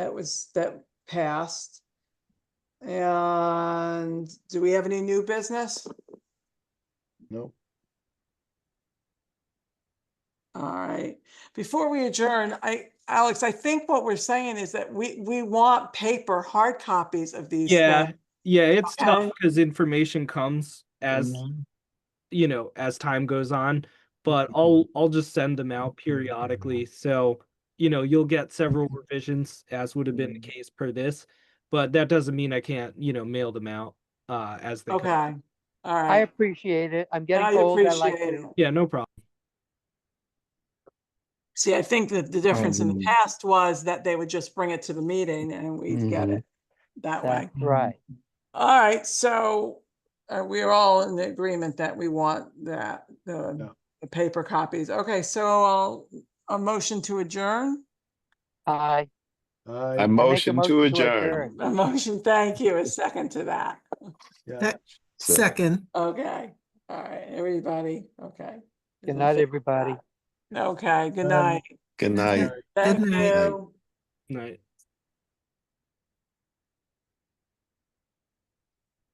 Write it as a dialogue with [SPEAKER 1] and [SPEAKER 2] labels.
[SPEAKER 1] that was, that passed. And do we have any new business?
[SPEAKER 2] Nope.
[SPEAKER 1] All right, before we adjourn, I, Alex, I think what we're saying is that we, we want paper, hard copies of these.
[SPEAKER 3] Yeah,
[SPEAKER 1] things.
[SPEAKER 3] yeah, it's tough
[SPEAKER 1] Okay.
[SPEAKER 3] because information comes as you know as time goes on. But I'll I'll just send them out periodically, so you know you'll get several revisions as would have been the case per this. But that doesn't mean I can't you know mail them out uh as they. come.
[SPEAKER 1] Okay, all
[SPEAKER 4] I
[SPEAKER 1] right.
[SPEAKER 4] appreciate it. I'm
[SPEAKER 1] I
[SPEAKER 4] getting old. I like
[SPEAKER 1] appreciate
[SPEAKER 4] it.
[SPEAKER 1] it.
[SPEAKER 3] Yeah, no problem.
[SPEAKER 1] See, I think that the difference in the
[SPEAKER 2] Mhm.
[SPEAKER 1] past was that they would just bring it to the meeting and we'd get
[SPEAKER 2] Mhm.
[SPEAKER 1] it that way.
[SPEAKER 4] That's right.
[SPEAKER 1] All right, so uh, we are all in agreement that we want that,
[SPEAKER 2] Yeah.
[SPEAKER 1] the, the paper copies. Okay, so I'll, a motion to adjourn?
[SPEAKER 4] I.
[SPEAKER 2] I,
[SPEAKER 5] I
[SPEAKER 4] I make a
[SPEAKER 5] motion to adjourn.
[SPEAKER 1] A motion, thank you, a second to that.
[SPEAKER 2] yeah,
[SPEAKER 6] That- Second.
[SPEAKER 1] Okay, all right, everybody, okay.
[SPEAKER 4] Good night, everybody.
[SPEAKER 1] Okay, good
[SPEAKER 2] Um,
[SPEAKER 1] night.
[SPEAKER 5] Good night.
[SPEAKER 1] Thank
[SPEAKER 6] night.
[SPEAKER 1] you.
[SPEAKER 3] Night.